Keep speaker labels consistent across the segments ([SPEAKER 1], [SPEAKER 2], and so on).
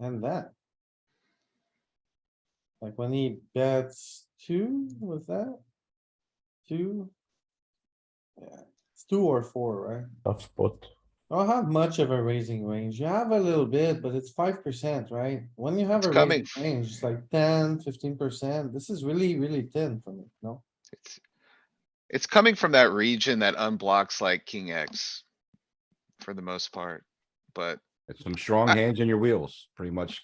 [SPEAKER 1] and that. Like when he bets two, was that? Two? Yeah, it's two or four, right?
[SPEAKER 2] Tough spot.
[SPEAKER 1] I don't have much of a raising range. You have a little bit, but it's five percent, right? When you have
[SPEAKER 3] It's
[SPEAKER 1] a
[SPEAKER 3] coming.
[SPEAKER 1] raising range, it's like 10, 15 percent. This is really, really thin for me, no?
[SPEAKER 3] It's, it's coming from that region that unblocks like king X. For the most part, but
[SPEAKER 4] It's some strong
[SPEAKER 3] I-
[SPEAKER 4] hands in your wheels, pretty much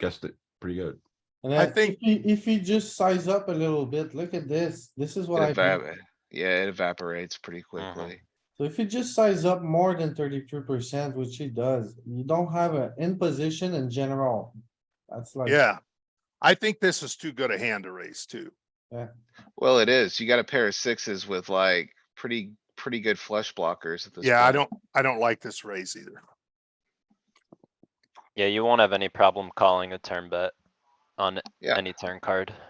[SPEAKER 4] guessed it pretty good.
[SPEAKER 1] And
[SPEAKER 5] I
[SPEAKER 1] then
[SPEAKER 5] think-
[SPEAKER 1] if you, if you just size up a little bit, look at this. This is what I.
[SPEAKER 3] it
[SPEAKER 1] mean.
[SPEAKER 3] evap, yeah, it evaporates pretty
[SPEAKER 6] Mm-hmm.
[SPEAKER 3] quickly.
[SPEAKER 1] So if you just size up more than thirty-two percent, which he does, you don't have an in position in general. That's like.
[SPEAKER 5] Yeah. I think this is too good a hand to raise too.
[SPEAKER 3] Well, it is. You got a pair of sixes with like pretty, pretty good flush blockers at this.
[SPEAKER 5] Yeah, I
[SPEAKER 3] point.
[SPEAKER 5] don't, I don't like this raise either.
[SPEAKER 6] Yeah, you won't have any problem calling a turn bet on
[SPEAKER 3] Yeah.
[SPEAKER 6] any turn card.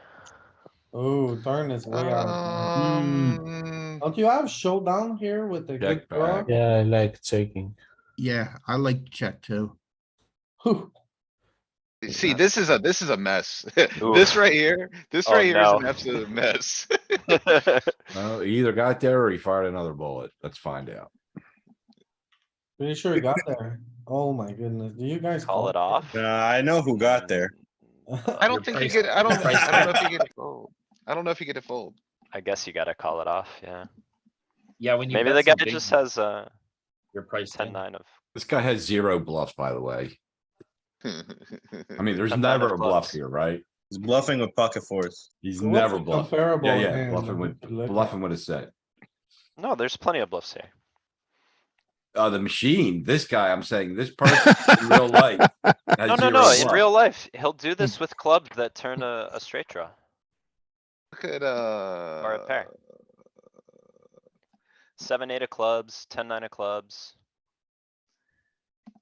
[SPEAKER 1] Oh, turn is way out.
[SPEAKER 6] Uh.
[SPEAKER 3] Um,
[SPEAKER 1] Don't you have showdown here with the good
[SPEAKER 4] Jack
[SPEAKER 1] draw?
[SPEAKER 4] back.
[SPEAKER 2] Yeah, I like checking.
[SPEAKER 7] Yeah, I like to check too.
[SPEAKER 1] Whew,
[SPEAKER 3] see, this is a, this is a mess. This
[SPEAKER 6] Oof.
[SPEAKER 3] right here, this
[SPEAKER 6] Oh,
[SPEAKER 3] right here is an
[SPEAKER 6] no.
[SPEAKER 3] absolute mess.
[SPEAKER 4] No, he either got there or he fired another bullet. Let's find out.
[SPEAKER 1] pretty sure he got there. Oh my goodness, do you guys?
[SPEAKER 6] Call it off.
[SPEAKER 8] I know who got there.
[SPEAKER 3] I don't think you get, I don't, I don't know if you get to fold. I don't know if you get to fold.
[SPEAKER 6] I guess you gotta call it off, yeah.
[SPEAKER 9] Yeah, when you.
[SPEAKER 6] Maybe
[SPEAKER 9] bet
[SPEAKER 6] the guy
[SPEAKER 9] something,
[SPEAKER 6] just has, uh,
[SPEAKER 9] Your price
[SPEAKER 6] ten
[SPEAKER 9] tag.
[SPEAKER 6] nine of,
[SPEAKER 4] This guy has zero bluffs, by the way. I mean, there's
[SPEAKER 6] I'm not
[SPEAKER 4] never
[SPEAKER 6] a
[SPEAKER 4] a bluff
[SPEAKER 6] bluff.
[SPEAKER 4] here, right?
[SPEAKER 8] He's bluffing with pocket fours.
[SPEAKER 4] He's
[SPEAKER 1] What's
[SPEAKER 4] never
[SPEAKER 1] a
[SPEAKER 4] bluffing.
[SPEAKER 1] comparable
[SPEAKER 4] Yeah, yeah,
[SPEAKER 1] hand
[SPEAKER 4] bluffing
[SPEAKER 1] we
[SPEAKER 4] with,
[SPEAKER 1] could look at?
[SPEAKER 4] bluffing with a set.
[SPEAKER 6] no, there's plenty of bluffs here.
[SPEAKER 4] Uh, the machine, this guy, I'm saying, this person in real life. has
[SPEAKER 6] No, no,
[SPEAKER 4] zero
[SPEAKER 6] no, in
[SPEAKER 4] bluff.
[SPEAKER 6] real life, he'll do this with clubs that turn a, a straight draw.
[SPEAKER 3] Look at, uh.
[SPEAKER 6] pair. Seven, eight of clubs, ten, nine of clubs.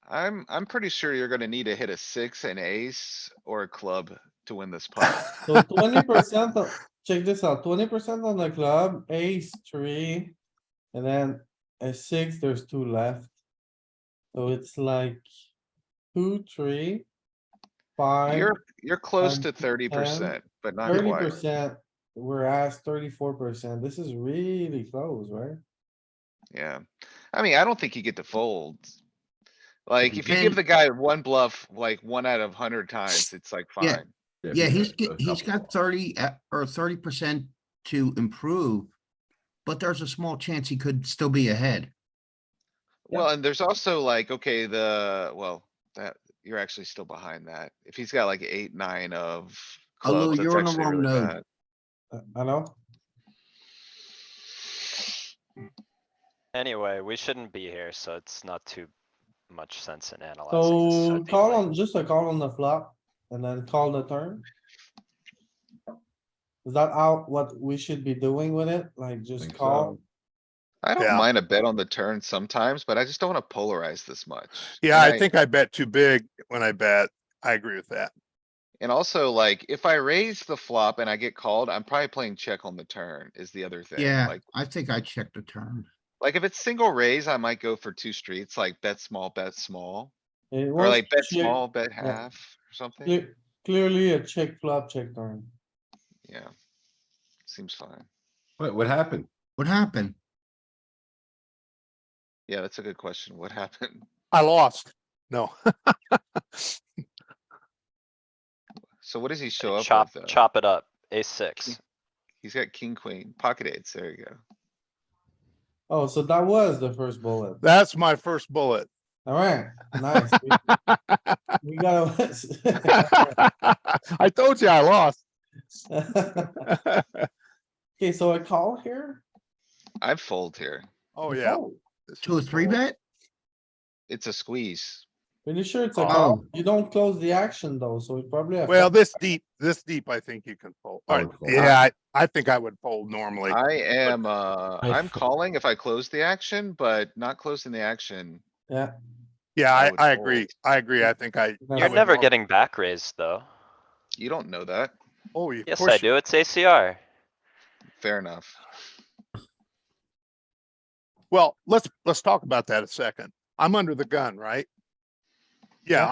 [SPEAKER 3] I'm, I'm pretty sure you're gonna need to hit a six, an ace, or a club to win this pot.
[SPEAKER 1] So twenty percent, check this out, twenty percent on the club, ace three, and then a six, there's two left. So it's like two, three, five,
[SPEAKER 3] You're, you're close
[SPEAKER 1] five,
[SPEAKER 3] to thirty percent, but not
[SPEAKER 1] thirty
[SPEAKER 3] quite.
[SPEAKER 1] percent. We're asked thirty-four percent. This is really close, right?
[SPEAKER 3] Yeah. I mean, I don't think you get to fold. Like, if you give
[SPEAKER 7] And-
[SPEAKER 3] the guy one bluff, like one out of hundred times, it's like
[SPEAKER 7] Yeah.
[SPEAKER 3] fine.
[SPEAKER 7] Yeah,
[SPEAKER 4] he
[SPEAKER 7] he's,
[SPEAKER 4] does,
[SPEAKER 7] g-
[SPEAKER 4] a
[SPEAKER 7] he's
[SPEAKER 4] couple.
[SPEAKER 7] got thirty uh, or thirty percent to improve. But there's a small chance he could still be ahead.
[SPEAKER 3] Well, and there's also like, okay, the, well, that, you're actually still behind that. If he's got like eight, nine of
[SPEAKER 7] Oh, Lou,
[SPEAKER 3] clubs, that's
[SPEAKER 7] you're on the
[SPEAKER 3] actually
[SPEAKER 7] wrong
[SPEAKER 3] really
[SPEAKER 7] node.
[SPEAKER 3] bad.
[SPEAKER 1] Uh, I know.
[SPEAKER 6] Anyway, we shouldn't be here, so it's not too much sense in analyzing this so
[SPEAKER 1] So call
[SPEAKER 6] deeply.
[SPEAKER 1] on, just a call on the flop and then call the turn. Is that out what we should be doing with it? Like just
[SPEAKER 4] Think so.
[SPEAKER 1] call?
[SPEAKER 3] I
[SPEAKER 5] Yeah.
[SPEAKER 3] don't mind a bet on the turn sometimes, but I just don't wanna polarize this much.
[SPEAKER 5] Yeah,
[SPEAKER 3] And
[SPEAKER 5] I think I bet too big when I bet. I agree with that.
[SPEAKER 3] And also like, if I raise the flop and I get called, I'm probably playing check on the turn is the other thing.
[SPEAKER 7] Yeah,
[SPEAKER 3] Like,
[SPEAKER 7] I think I checked the turn.
[SPEAKER 3] Like if it's single raise, I might go for two streets, like bet small, bet small,
[SPEAKER 1] It
[SPEAKER 3] or
[SPEAKER 1] was
[SPEAKER 3] like bet
[SPEAKER 1] clear-
[SPEAKER 3] small, bet half or something.
[SPEAKER 1] clear- Clearly a check flop, check turn.
[SPEAKER 3] Yeah. Seems fine.
[SPEAKER 4] What, what happened?
[SPEAKER 7] What happened?
[SPEAKER 3] Yeah, that's a good question. What happened?
[SPEAKER 5] I lost. No.
[SPEAKER 3] So what does he
[SPEAKER 6] Like,
[SPEAKER 3] show up
[SPEAKER 6] Chop,
[SPEAKER 3] with though?
[SPEAKER 6] chop it up, ace six.
[SPEAKER 3] He's got king, queen, pocket eights. There you go.
[SPEAKER 1] Oh, so that was the first bullet.
[SPEAKER 5] That's my first bullet.
[SPEAKER 1] Alright, nice. We- We got a.
[SPEAKER 5] I told you I lost.
[SPEAKER 1] Okay, so a call here?
[SPEAKER 3] I'd fold here.
[SPEAKER 5] Oh, yeah.
[SPEAKER 1] Oh,
[SPEAKER 5] this
[SPEAKER 7] Two or
[SPEAKER 5] is
[SPEAKER 7] three
[SPEAKER 5] cool.
[SPEAKER 7] bet?
[SPEAKER 3] It's a squeeze.
[SPEAKER 1] Pretty sure it's a
[SPEAKER 6] Oh.
[SPEAKER 1] call. You don't close the action though, so we probably. have-
[SPEAKER 5] Well, this deep, this deep, I think you can fold.
[SPEAKER 4] I
[SPEAKER 5] Alright,
[SPEAKER 4] would fold.
[SPEAKER 5] yeah, I, I think I would fold normally.
[SPEAKER 3] I am, uh,
[SPEAKER 2] I
[SPEAKER 3] I'm
[SPEAKER 2] fo-
[SPEAKER 3] calling if I close the action, but not closing the action.
[SPEAKER 1] Yeah,
[SPEAKER 5] Yeah,
[SPEAKER 3] I
[SPEAKER 5] I,
[SPEAKER 3] would
[SPEAKER 5] I agree.
[SPEAKER 3] fold.
[SPEAKER 5] I agree. I think I.
[SPEAKER 1] You're
[SPEAKER 5] I
[SPEAKER 6] You're
[SPEAKER 5] would
[SPEAKER 6] never
[SPEAKER 5] fold.
[SPEAKER 6] getting back raised, though.
[SPEAKER 3] You don't know that.
[SPEAKER 5] Oh, you.
[SPEAKER 6] Yes, I do, it's ACR.
[SPEAKER 3] Fair enough.
[SPEAKER 5] Well, let's, let's talk about that a second. I'm under the gun, right? Yeah,